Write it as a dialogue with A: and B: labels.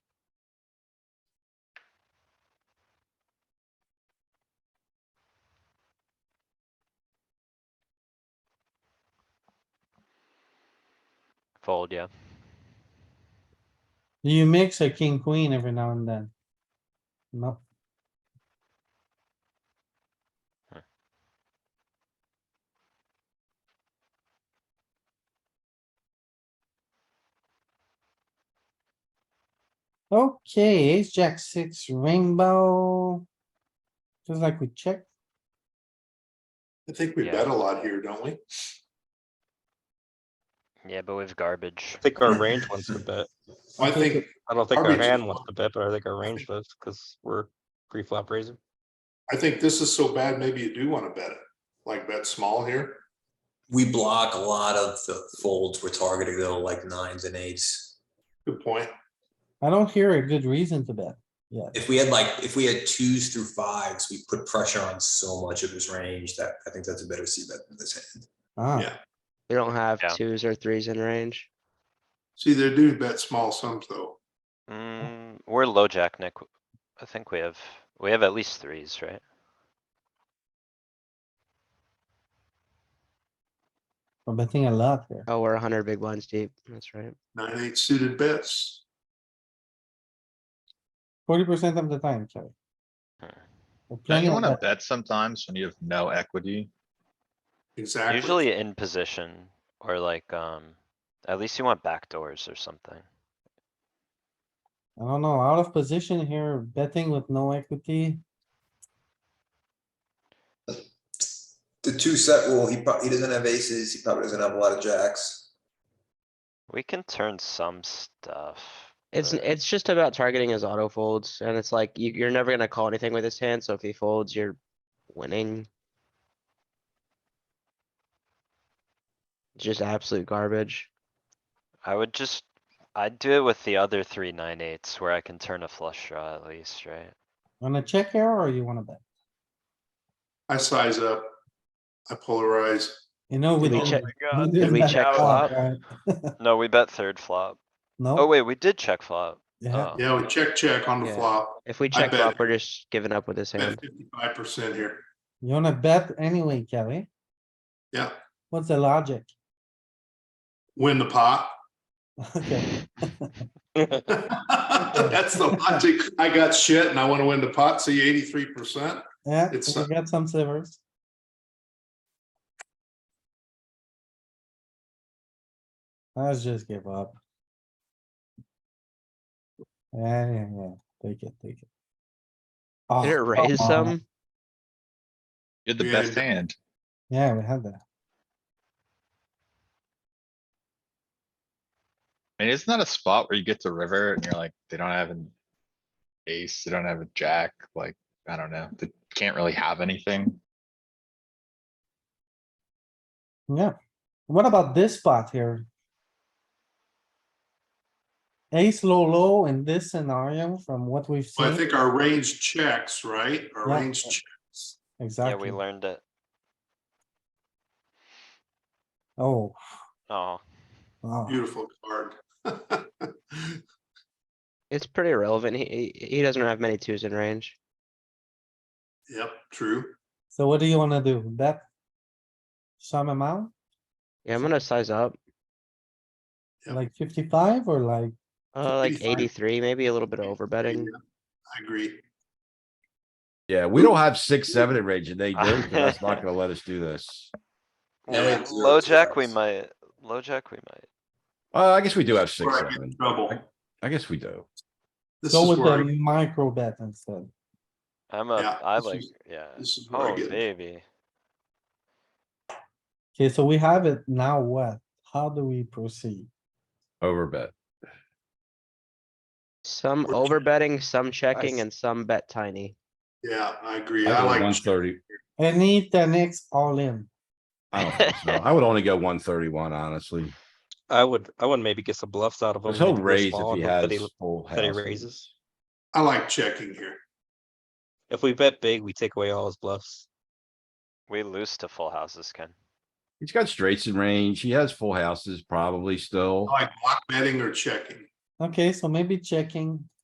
A: fold, yeah.
B: You mix a king, queen every now and then. No, okay, ace, jack, six, rainbow. Just like we checked,
C: I think we
A: Yeah.
C: bet a lot here, don't we?
A: Yeah, but with garbage.
D: I think our range wants to bet.
C: I think,
D: I don't think
C: Our
D: our
C: range-
D: hand wants to bet, but I think our range does, because we're pre-flop raising.
C: I think this is so bad, maybe you do wanna bet it, like bet small here.
E: We block a lot of the folds we're targeting though, like nines and eights.
C: Good point.
B: I don't hear a good reason to bet.
E: If we had like, if we had twos through fives, we put pressure on so much of his range that I think that's a better C bet than this hand.
B: Ah,
C: Yeah.
F: We don't have
A: Yeah.
F: twos or threes in range.
C: See, they do bet small sums though.
A: Mm, we're low jack, Nick. I think we have, we have at least threes, right?
B: I'm betting a lot here.
F: Oh, we're hundred big blinds deep. That's right.
C: Nine, eight suited bets.
B: Forty percent of the time, sorry.
A: Hmm.
B: We're
G: Don't
B: playing
G: you
B: a
G: wanna
B: bet.
G: bet sometimes when you have no equity?
C: Exactly.
A: Usually in position or like, um, at least you want backdoors or something.
B: I don't know, out of position here, betting with no equity.
E: The two set rule, he probably, he doesn't have aces, he probably doesn't have a lot of jacks.
A: We can turn some stuff.
F: It's,
A: but-
F: it's just about targeting his auto folds and it's like, you, you're never gonna call anything with his hand, so if he folds, you're winning. Just absolute garbage.
A: I would just, I'd do it with the other three nine eights where I can turn a flush draw at least, right?
B: Wanna check here or you wanna bet?
C: I size up. I polarize.
B: You know, we
F: Did we
B: don't.
F: check, uh,
B: we
F: did
B: didn't
F: we
B: bet
F: check
B: a lot,
F: flop?
B: right?
A: No, we bet third flop. Oh
B: No,
A: wait, we did check flop.
B: yeah,
F: uh.
A: Oh.
C: Yeah, we check, check on the
F: Yeah.
C: flop.
F: if we check
C: bet
F: flop,
C: it.
F: we're just giving up with his hand.
C: Bet fifty-five percent here.
B: you wanna bet anyway, Kelly.
C: Yeah,
B: What's the logic?
C: win the pot.
B: Okay,
C: That's the logic. I got shit and I wanna win the pot, see eighty-three percent.
B: yeah,
C: It's
B: we
C: not-
B: got some slivers. Let's just give up. Yeah, yeah, yeah, take it, take it. Oh,
F: Did it
B: come
F: raise
B: on.
F: some?
G: You're the
C: Yeah,
G: best
C: yeah.
G: hand.
B: Yeah, we had that.
G: I mean, isn't that a spot where you get to river and you're like, they don't have an ace, they don't have a jack, like, I don't know, they can't really have anything.
B: Yeah, what about this spot here? Ace low, low in this scenario from what we've
C: Well, I
B: seen,
C: think our range checks, right? Our
B: Yeah.
C: range checks.
A: Yeah, we
B: exactly.
A: learned it.
B: Oh,
A: Oh,
B: wow.
C: Beautiful card.
F: It's pretty irrelevant. He, he he doesn't have many twos in range.
C: Yep, true.
B: So what do you wanna do? Bet? Some amount,
F: Yeah, I'm gonna size up,
C: Yep.
B: like fifty-five or like,
F: uh, like
C: 55.
F: eighty-three, maybe a little bit over betting.
C: Yeah, I agree.
H: Yeah, we don't have six, seven in range and they do, and that's not gonna let us do this.
C: Yeah, we
E: have zero
A: low jack, we
E: jacks.
A: might, low jack, we might.
H: Uh, I guess we do have six,
C: Where I get in
H: seven.
C: trouble.
H: I guess we do.
C: This
B: go
C: is
B: with
C: where,
B: the
C: I-
B: micro bet instead.
A: I'm a,
C: Yeah,
A: I
C: this
A: like,
C: is-
A: yeah.
C: this is where I
A: Oh,
C: get. in-
A: baby.
B: Okay, so we have it now what? How do we proceed?
H: Overbet.
F: Some
C: Or-
F: over betting, some checking,
H: Nice.
F: and some bet tiny.
C: Yeah, I agree. I
H: I go one
C: like,
H: thirty.
B: Any ten X all in,
H: I don't think so. I would only go one thirty-one, honestly.
D: I would, I would maybe get some bluffs out of him.
H: But He'll
D: maybe go
H: raise
D: small
H: if he
D: and hope that
H: has full
D: That he
H: house.
D: raises.
C: I like checking here.
D: If we bet big, we take away all his bluffs.
A: We lose to full houses, Ken.
H: He's got straights in range. He has full houses probably still.
C: I like block betting or checking.
B: okay, so maybe checking,